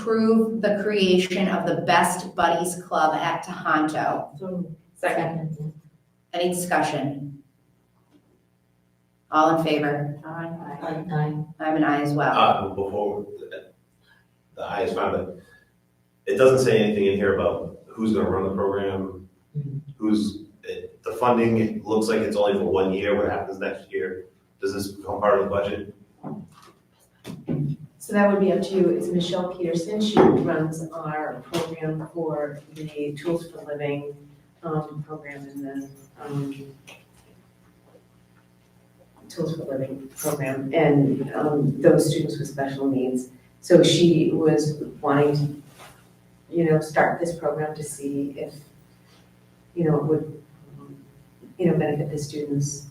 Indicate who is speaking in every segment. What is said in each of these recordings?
Speaker 1: approve the creation of the Best Buddies Club at Tohoto.
Speaker 2: Second.
Speaker 1: Any discussion? All in favor?
Speaker 2: Aye.
Speaker 1: I'm an aye as well.
Speaker 3: Uh, before, the highest found it, it doesn't say anything in here about who's gonna run the program, who's, it- the funding, it looks like it's only for one year, what happens next year? Does this become part of the budget?
Speaker 2: So that would be up to you. It's Michelle Peterson. She runs our program for the Tools for Living um, program and the um, Tools for Living program and um, those students with special needs. So she was wanting to, you know, start this program to see if, you know, it would, um, you know, benefit the students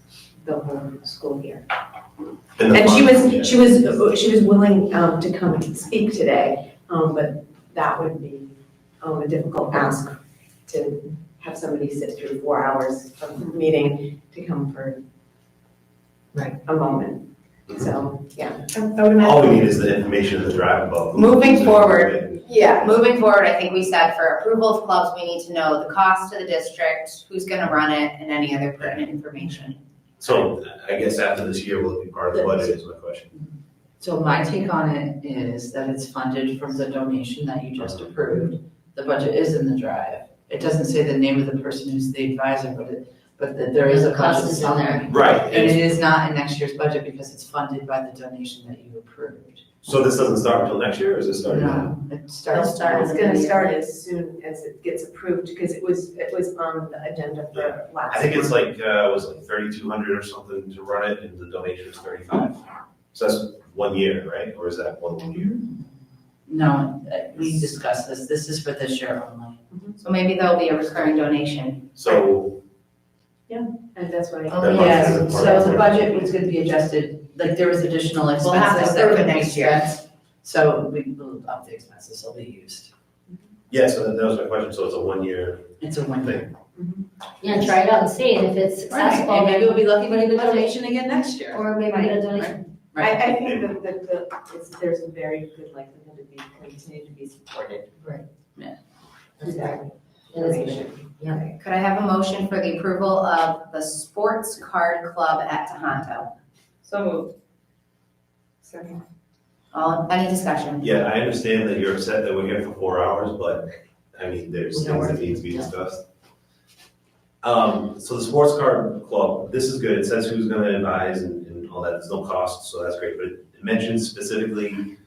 Speaker 2: the whole school year.
Speaker 3: And the
Speaker 2: And she
Speaker 3: funding, yeah.
Speaker 2: was, she was, she was willing um, to come and speak today, um, but that would be um, a difficult ask to have somebody sit through four hours of meeting to come for
Speaker 4: Right.
Speaker 2: a moment. So, yeah.
Speaker 3: All we need is the information in the drive about. who-
Speaker 1: Moving
Speaker 3: who's gonna
Speaker 1: forward.
Speaker 3: run it.
Speaker 2: Yeah.
Speaker 1: Moving forward, I think we said for approval of clubs, we need to know the cost to the district, who's gonna run it, and any other pertinent information.
Speaker 3: So I guess after this year, will it be part of the budget is my question.
Speaker 4: So my take on it is that it's funded from the donation that you just
Speaker 3: Uh-huh.
Speaker 4: approved. The budget is in the drive. It doesn't say the name of the person who's the advisor, but it, but that there is a
Speaker 5: Cost
Speaker 4: budget
Speaker 5: is in there.
Speaker 4: somewhere.
Speaker 3: Right,
Speaker 4: And
Speaker 3: and
Speaker 4: it is not in next year's budget because it's funded by the donation that you approved.
Speaker 3: so this doesn't start until next year, or is it starting now?
Speaker 4: No, it starts.
Speaker 5: It'll start
Speaker 2: It's gonna start as soon as it gets approved, because it was, it was on the agenda for last.
Speaker 3: I think it's
Speaker 2: month.
Speaker 3: like, uh, it was like thirty-two hundred or something to run it, and the donation is thirty-five. So that's one year, right, or is that one year?
Speaker 4: No, uh, we discussed this. This is for this year only.
Speaker 1: So maybe there'll be a recurring donation.
Speaker 3: So,
Speaker 2: And that's what I.
Speaker 3: That budget
Speaker 4: yes.
Speaker 3: isn't part of
Speaker 4: So the
Speaker 3: it.
Speaker 4: budget was gonna be adjusted, like there was additional
Speaker 1: We'll have to
Speaker 4: expenses that
Speaker 1: approve
Speaker 4: could
Speaker 1: it
Speaker 4: be
Speaker 1: next year.
Speaker 4: spent. So we will up the expenses, they'll be used.
Speaker 3: yeah, so that that was my question, so it's a one-year
Speaker 4: It's a one year.
Speaker 3: thing.
Speaker 5: Yeah, try it out and see, and if it's successful,
Speaker 4: And maybe we'll
Speaker 5: then,
Speaker 4: be lucky to get a donation again next year.
Speaker 5: or maybe get a donation.
Speaker 2: I,
Speaker 4: Right.
Speaker 2: I think that, that, the it's, there's a very good likelihood to be, continue to be supported.
Speaker 5: Right.
Speaker 4: Yeah.
Speaker 2: Exactly.
Speaker 5: It is good.
Speaker 1: Could I have a motion for the approval of the Sports Card Club at Tohoto?
Speaker 2: So moved. Second.
Speaker 1: All, any discussion?
Speaker 3: Yeah, I understand that you're upset that we're here for four hours, but, I mean, there's things that need to be discussed. Um, so the sports card club, this is good, it says who's gonna advise and, and all that, there's no cost, so that's great, but it mentions specifically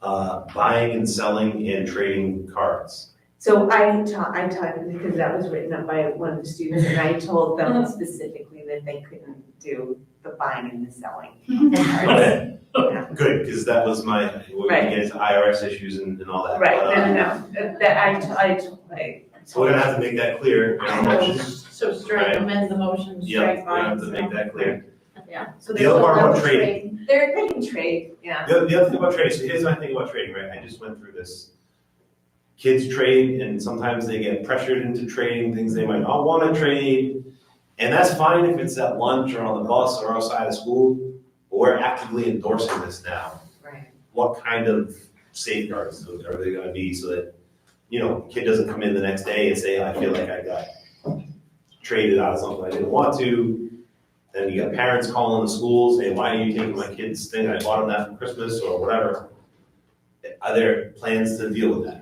Speaker 3: uh, buying and selling and trading cards.
Speaker 2: So I taught, I taught, because that was written up by one of the students, and I told them specifically that they couldn't do the buying and the selling.
Speaker 3: Okay,
Speaker 2: Yeah.
Speaker 3: good, because that was my, when we
Speaker 2: Right.
Speaker 3: get into IRS issues and, and all that.
Speaker 2: Right,
Speaker 3: But,
Speaker 2: no,
Speaker 3: um,
Speaker 2: no, no, that I, t- I, t- I-
Speaker 3: So we're gonna have to make that clear in our motions.
Speaker 6: So strike, amend the motion,
Speaker 3: Yeah,
Speaker 6: strike
Speaker 3: we're gonna have
Speaker 6: mine.
Speaker 3: to make that clear.
Speaker 6: Yeah.
Speaker 2: So
Speaker 3: The other part about trading,
Speaker 2: They're, they can trade, yeah.
Speaker 3: the other, the other thing about trading, so here's my thing about trading, right, I just went through this. Kids trade and sometimes they get pressured into trading things they might not wanna trade. And that's fine if it's at lunch or on the bus or outside of school, but we're actively endorsing this now.
Speaker 2: Right.
Speaker 3: what kind of safeguards are they gonna be so that, you know, kid doesn't come in the next day and say, I feel like I got traded out of something I didn't want to. Then you got parents calling the schools, saying, why are you taking my kid's thing? I bought them that for Christmas or whatever. Are there plans to deal with that?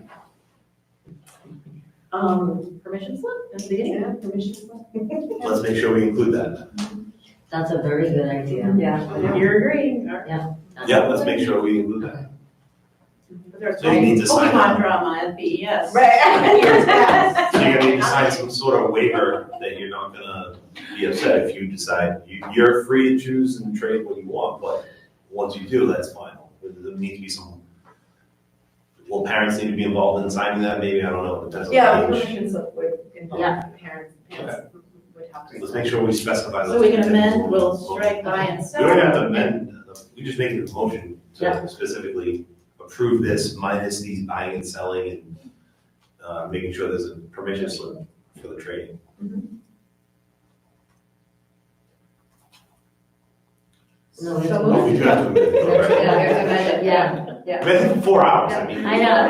Speaker 2: Um,
Speaker 6: Permission slip in the beginning?
Speaker 2: yeah, permission slip?
Speaker 3: Let's make sure we include that.
Speaker 5: That's a very good idea.
Speaker 2: Yeah.
Speaker 6: You're agreeing, or?
Speaker 3: Yeah, let's make sure we include that. So you need to sign
Speaker 6: Pokemon
Speaker 3: up.
Speaker 6: drama at BES.
Speaker 2: Right.
Speaker 3: So you're gonna need to sign some sort of waiver that you're not gonna be upset if you decide, you, you're free to choose and trade what you want, but once you do, that's final. There needs to be some, will parents need to be involved in signing that, maybe, I don't know, depends on
Speaker 2: Yeah,
Speaker 3: the age.
Speaker 2: permission slip would involve parents, parents would have to.
Speaker 3: Let's make sure we specify.
Speaker 6: So
Speaker 3: those
Speaker 6: we can
Speaker 3: things.
Speaker 6: amend, we'll strike, buy and
Speaker 3: We don't have
Speaker 6: sell.
Speaker 3: to amend, we just make a motion to
Speaker 5: Yeah.
Speaker 3: specifically approve this minus these buying and selling and, uh, making sure there's a permission slip for the trading.
Speaker 5: No, we
Speaker 2: So
Speaker 5: have to-
Speaker 2: moved.
Speaker 3: Oh, we do have to amend it, all right.
Speaker 5: Yeah, yeah.
Speaker 2: Been four hours, I mean.
Speaker 3: I know.